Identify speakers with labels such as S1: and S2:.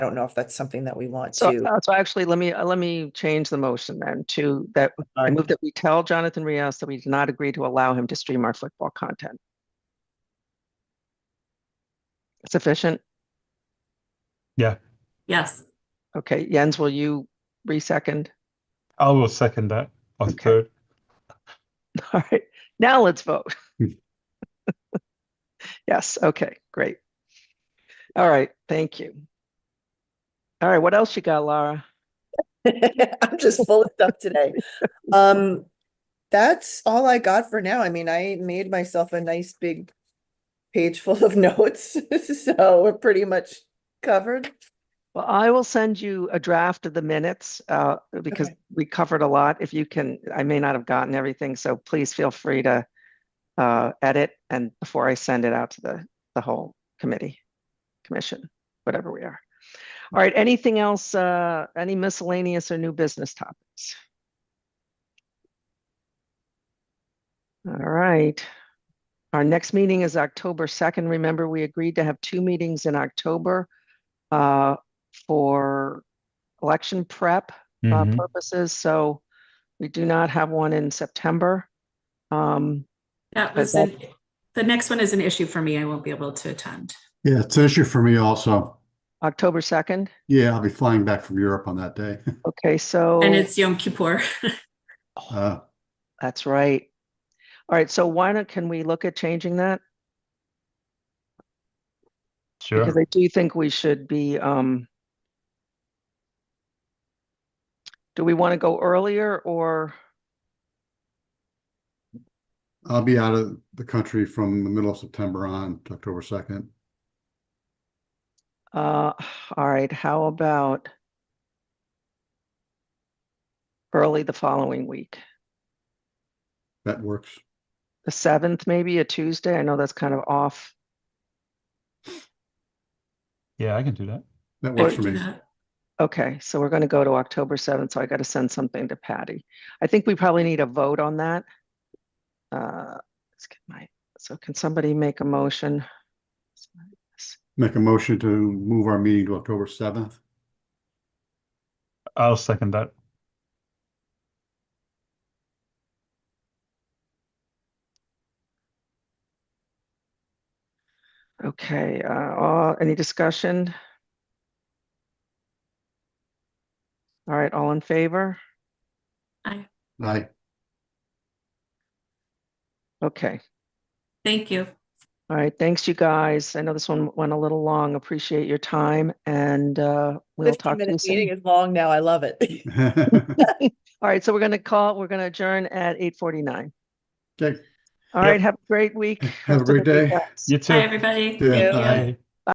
S1: I don't know if that's something that we want
S2: So,
S1: to.
S2: uh, so actually, let me, uh, let me change the motion then to that, I
S1: Sorry.
S2: move that we tell Jonathan Rios that we do not agree to allow him to stream our football content. Sufficient?
S3: Yes,
S2: Okay, Jens, will you re-second?
S4: I will second that. Or
S2: Okay.
S4: third.
S2: All right, now let's vote. Yes, okay, great. All right, thank you. All right, what else you got, Laura? uh,
S1: I'm just full of stuff today. Um, that's all I got for now. I mean, I made myself a nice big page full of notes, so we're pretty much covered.
S2: Well, I will send you a draft of the minutes, uh, because
S1: Okay.
S2: we covered a lot. If you can, I may not have gotten everything, so please feel free to uh, edit and before I send it out to the, the whole committee, commission, whatever we are. All right, anything else, uh, any miscellaneous or new business topics? All right. Our next meeting is October 2nd. Remember, we agreed to have two meetings in October uh, for election prep uh,
S4: Mhm.
S2: purposes, so we do not have one in September. Um,
S3: that
S2: But
S3: was,
S2: that-
S3: an- the next one is an issue for me. I won't be able to attend.
S5: Yeah, it's an issue for me also.
S2: October 2nd,
S5: Yeah, I'll be flying back from Europe on that day.
S2: okay, so,
S3: And it's Yom Kippur.
S5: Uh,
S2: that's right. All right, so why not, can we look at changing that?
S4: Sure.
S2: Because I do think we should be, um, do we want to go earlier or,
S5: I'll be out of the country from the middle of September on to October 2nd.
S2: uh, all right, how about early the following week?
S5: That works.
S2: the seventh, maybe a Tuesday. I know that's kind of off.
S4: Yeah, I can do that.
S5: That
S3: I
S5: works
S3: can
S5: for
S3: do
S5: me.
S3: that.
S2: Okay, so we're going to go to October seventh, so I got to send something to Patty. I think we probably need a vote on that. Uh, let's get my, so can somebody make a motion?
S5: Make a motion to move our meeting to October 7th.
S4: I'll second that.
S2: Okay, uh, all- any discussion? All right, all in favor?
S5: Aye.
S2: Okay,
S3: Thank you.
S2: all right, thanks you guys. I know this one went a little long. Appreciate your time and, uh, we'll talk to you
S1: Fifteen-minute meeting
S2: soon.
S1: is long now. I love it.
S2: All right, so we're going to call, we're going to adjourn at eight forty-nine.
S5: Okay,
S2: All
S4: Yep.
S2: right, have a great week.
S5: Have a
S2: rest of
S5: great
S2: the week,
S5: day.
S2: guys.
S4: You
S3: Bye,
S4: too.
S3: everybody.
S5: Yeah,
S3: Thank you.
S5: bye.
S4: Bye.